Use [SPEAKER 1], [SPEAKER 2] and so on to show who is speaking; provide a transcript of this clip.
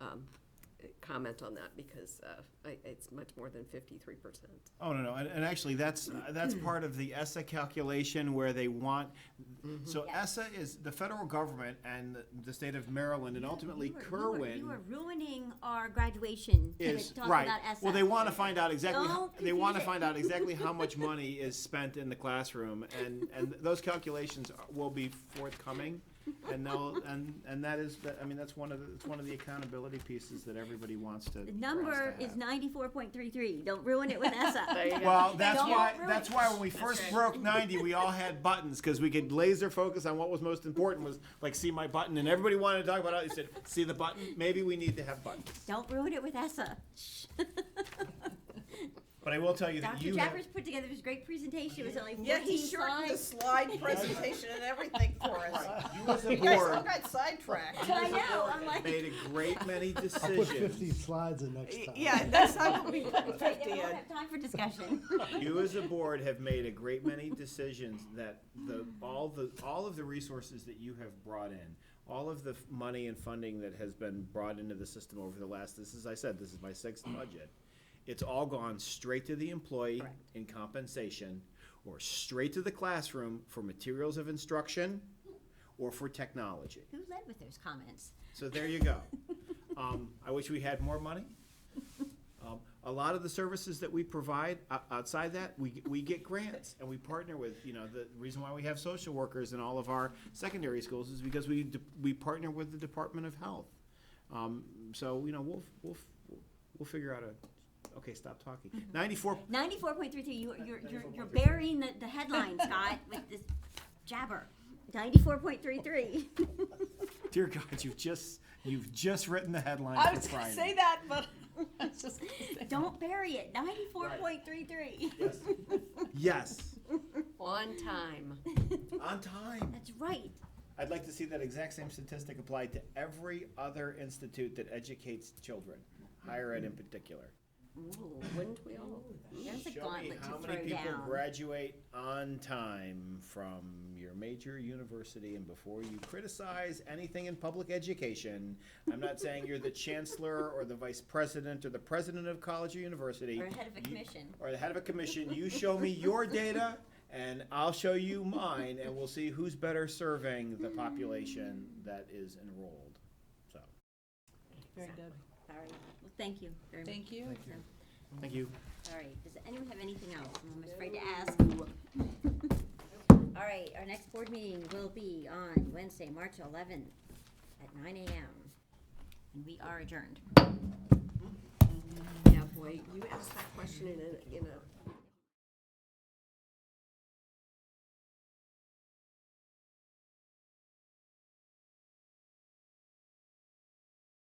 [SPEAKER 1] um, comment on that because uh, I- it's much more than 53%.
[SPEAKER 2] Oh, no, no, and, and actually, that's, that's part of the ESSA calculation where they want,
[SPEAKER 3] Mm-hmm.
[SPEAKER 2] so ESSA is the federal government and the- the state of Maryland and ultimately
[SPEAKER 3] You are- you are-
[SPEAKER 2] Kerwin.
[SPEAKER 3] You are ruining our graduation
[SPEAKER 2] is
[SPEAKER 3] to talk
[SPEAKER 2] right.
[SPEAKER 3] about ESSA.
[SPEAKER 2] Well, they want to find out exactly.
[SPEAKER 3] Don't
[SPEAKER 2] how, they want to
[SPEAKER 3] confuse
[SPEAKER 2] find
[SPEAKER 3] it.
[SPEAKER 2] out exactly how much money is spent in the classroom, and and those calculations are- will be forthcoming, and they'll and and that is that. I mean, that's one of the, it's one of the accountability pieces that everybody wants to.
[SPEAKER 3] The
[SPEAKER 2] wants
[SPEAKER 3] number
[SPEAKER 2] to
[SPEAKER 3] is
[SPEAKER 2] have.
[SPEAKER 3] ninety-four point three three. Don't ruin it with
[SPEAKER 1] There you
[SPEAKER 3] ESSA.
[SPEAKER 1] go.
[SPEAKER 2] Well, that's
[SPEAKER 3] Don't
[SPEAKER 2] why
[SPEAKER 3] ruin it.
[SPEAKER 2] that's why when we first broke 90, we all had buttons because we could laser focus on what was most important was like see my button, and everybody wanted to talk about it. They said, "See the button? Maybe we need to have buttons."
[SPEAKER 3] Don't ruin it with ESSA.
[SPEAKER 2] But I will tell you that
[SPEAKER 3] Dr.
[SPEAKER 2] you have-
[SPEAKER 3] Jaffers put together this great presentation. It was only
[SPEAKER 4] Yeah, he
[SPEAKER 3] fourteen
[SPEAKER 4] shortened the
[SPEAKER 3] slides.
[SPEAKER 4] slide presentation and everything for us.
[SPEAKER 2] you as a
[SPEAKER 4] You guys all
[SPEAKER 2] board-
[SPEAKER 4] got sidetracked.
[SPEAKER 3] I know, I'm like,
[SPEAKER 2] made a great many
[SPEAKER 5] I'll put 50
[SPEAKER 2] decisions.
[SPEAKER 5] slides in next time.
[SPEAKER 4] Yeah, next time we'll be
[SPEAKER 3] I
[SPEAKER 4] fifty
[SPEAKER 3] don't
[SPEAKER 4] in.
[SPEAKER 3] have time for discussion.
[SPEAKER 2] You as a board have made a great many decisions that the, all the, all of the resources that you have brought in, all of the f- money and funding that has been brought into the system over the last, this is, I said, this is my sixth budget. It's all gone straight to the employee in compensation, or straight to the classroom for materials of instruction, or for technology.
[SPEAKER 3] Who led with those comments?
[SPEAKER 2] So there you go. Um, I wish we had more money. Um, a lot of the services that we provide o- outside that, we, we get grants and we partner with, you know, the reason why we have social workers in all of our secondary schools is because we, de- we partner with the Department of Health. Um, so, you know, we'll, we'll, we'll figure out a, okay, stop talking. Ninety-four,
[SPEAKER 3] Ninety-four point three three, you, you're, you're, you're burying the, the headline, Scott, with this jabber. Ninety-four point three three.
[SPEAKER 2] dear God, you've just, you've just written the
[SPEAKER 4] I
[SPEAKER 2] headline for
[SPEAKER 4] was gonna
[SPEAKER 2] Friday.
[SPEAKER 4] say that, but I was just gonna say.
[SPEAKER 3] Don't bury it. Ninety-four point three three.
[SPEAKER 2] Yes,
[SPEAKER 1] On time.
[SPEAKER 2] on time.
[SPEAKER 3] That's right.
[SPEAKER 2] I'd like to see that exact same statistic applied to every other institute that educates children, higher ed in particular.
[SPEAKER 3] Ooh,
[SPEAKER 1] Wouldn't we all?
[SPEAKER 3] there's
[SPEAKER 2] Show
[SPEAKER 3] a
[SPEAKER 2] me
[SPEAKER 3] gauntlet to
[SPEAKER 2] how many
[SPEAKER 3] throw
[SPEAKER 2] people
[SPEAKER 3] down.
[SPEAKER 2] graduate on time from your major university, and before you criticize anything in public education, I'm not saying you're the chancellor or the vice president or the president of college or university.
[SPEAKER 3] Or head of a
[SPEAKER 2] You-
[SPEAKER 3] commission.
[SPEAKER 2] Or the head of a commission, you show me your data, and I'll show you mine, and we'll see who's better serving the population that is enrolled, so.
[SPEAKER 4] Very good.
[SPEAKER 3] All right. Well, thank you very much.
[SPEAKER 4] Thank you.
[SPEAKER 2] Thank you.
[SPEAKER 3] All right. Does anyone have anything else? I'm afraid to ask. All right. Our next board meeting will be on Wednesday, March 11th at 9 a.m. And we are adjourned.
[SPEAKER 1] Yeah, boy, you asked that question in a, in a